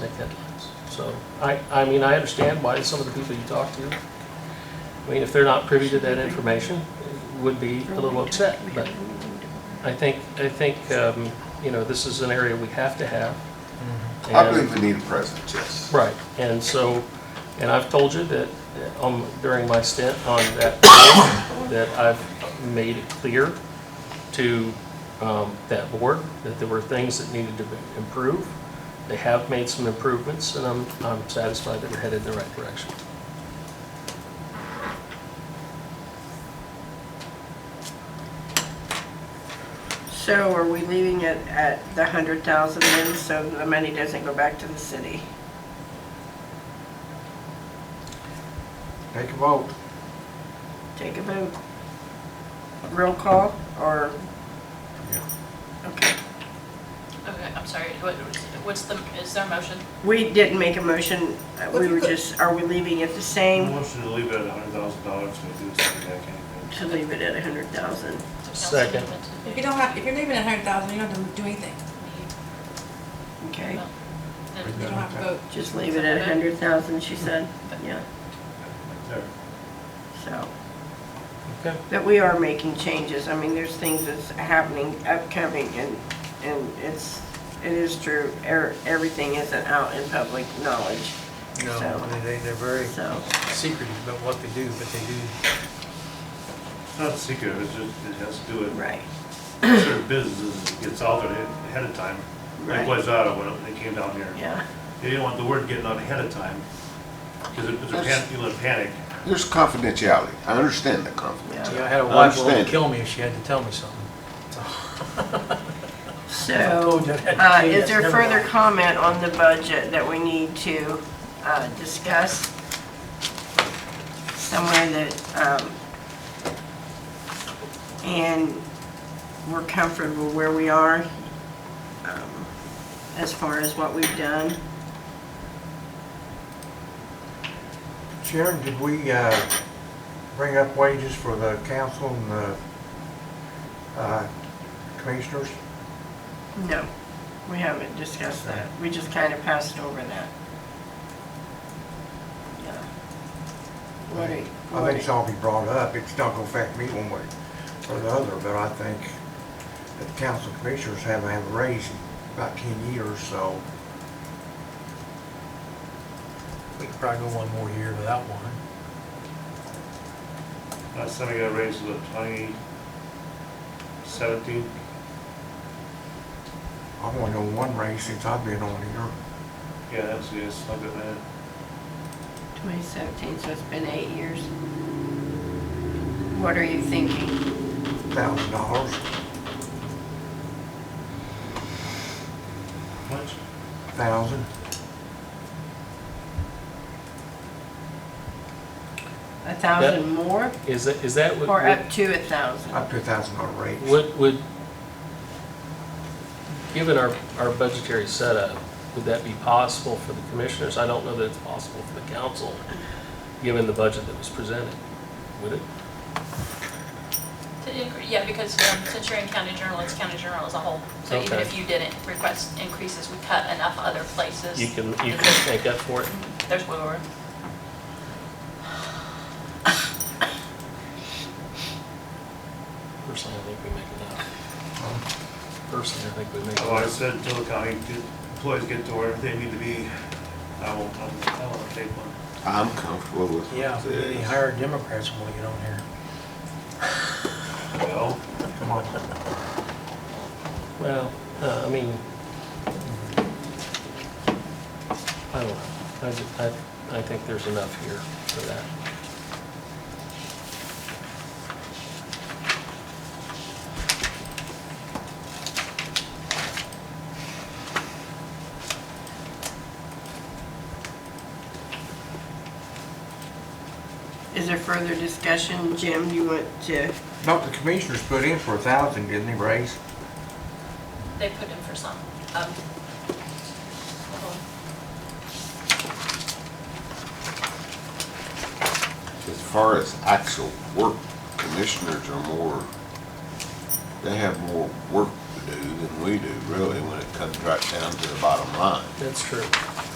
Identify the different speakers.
Speaker 1: make headlines. So, I, I mean, I understand why some of the people you talk to, I mean, if they're not privy to that information, would be a little upset, but I think, I think, um, you know, this is an area we have to have.
Speaker 2: I
Speaker 1: And-
Speaker 2: believe we need a president, yes.
Speaker 1: Right, and so, and I've told you that uh, um, during my stint on that, board, that I've made it clear to um, that board that there were things that needed to be- improve. They have made some improvements, and I'm, I'm satisfied that we're headed in the right direction.
Speaker 3: So are we leaving it at the hundred thousand then, so the money doesn't go back to the city?
Speaker 4: Take a vote.
Speaker 3: Take a vote. Roll call, or? Okay.
Speaker 5: Okay, I'm sorry, what, what's the, is there a motion?
Speaker 3: We didn't make a motion, uh, we were just, are we leaving it the same
Speaker 6: Motion to leave it at a hundred thousand dollars, we do something that can be.
Speaker 3: to leave it at a hundred thousand?
Speaker 5: to council
Speaker 1: Second.
Speaker 5: amendment to
Speaker 7: If
Speaker 5: be-
Speaker 7: you don't have, if you're leaving at hundred thousand, you don't have to do anything.
Speaker 3: Okay,
Speaker 5: Well,
Speaker 7: You
Speaker 5: then-
Speaker 7: don't have to vote.
Speaker 3: just leave it at a hundred thousand, she said, yeah,
Speaker 6: There.
Speaker 3: so.
Speaker 1: Okay.
Speaker 3: But we are making changes, I mean, there's things that's happening, upcoming, and, and it's, it is true, er- everything isn't out in public knowledge,
Speaker 4: No,
Speaker 3: So-
Speaker 4: I mean, they, they're very
Speaker 3: so.
Speaker 4: secretive about what they do, but they do.
Speaker 6: It's not secret, it's just, it has to do with
Speaker 3: Right,
Speaker 6: certain businesses, it gets out there ahead of time.
Speaker 3: Right.
Speaker 6: Like Wayzata, when they came down here,
Speaker 3: yeah.
Speaker 6: they didn't want the word getting out ahead of time, because it was a pan, people would panic.
Speaker 2: There's confidentiality. I understand the confidentiality.
Speaker 3: Yeah.
Speaker 4: See, I had a wife who would
Speaker 2: Understand.
Speaker 4: kill me if she had to tell me something.
Speaker 3: So, uh, is there further comment on the budget that we need to uh, discuss? Somewhere that, um, and we're comfortable where we are um, as far as what we've done?
Speaker 4: Sharon, did we, uh, bring up wages for the council and the, uh, commissioners?
Speaker 3: No, we haven't discussed that. We just kind of passed over that. Yeah. What do you-
Speaker 4: I think it's all be brought up, it's not gonna affect me one way or the other, but I think that the council commissioners haven't had a raise in about ten years, so. We could probably go one more year without one.
Speaker 6: Last time I got raised was twenty seventeen,
Speaker 4: I've only known one raise since I've been on here.
Speaker 6: yeah, that's, yes, like that,
Speaker 3: 2017, so it's been eight years. What are you thinking?
Speaker 4: Thousand dollars,
Speaker 6: much,
Speaker 4: thousand.
Speaker 3: A thousand more
Speaker 1: Is that, is that what?
Speaker 3: or up to a thousand?
Speaker 4: Up to a thousand dollar raise.
Speaker 1: What would, given our, our budgetary setup, would that be possible for the commissioners? I don't know that it's possible for the council, given the budget that was presented, would it?
Speaker 5: To incre- Yeah, because um, since you're in county journal, it's county journal as a whole. So even
Speaker 1: Okay.
Speaker 5: if you didn't request increases, we cut enough other places.
Speaker 1: You can, you can make up for it.
Speaker 5: There's wiggle room.
Speaker 1: Personally, I think we make enough. Personally, I think we make
Speaker 6: I've always
Speaker 1: enough.
Speaker 6: said, until the county employees get to where they need to be, I won't, I won't- I won't take one.
Speaker 2: I'm comfortable with this.
Speaker 8: Yeah, they hire Democrats when we get on here.
Speaker 6: Well,
Speaker 4: Come on.
Speaker 1: Well, uh, I mean, I don't know. I, ju- I, I think there's enough here for that.
Speaker 3: Is there further discussion? Jim, you want to,
Speaker 4: Not the commissioners put in for a thousand, didn't they, raise?
Speaker 5: They put in for some. Um, hold on.
Speaker 2: As far as actual work, commissioners are more, they have more work to do than we do, really, when it comes right down to the bottom line.
Speaker 1: That's true.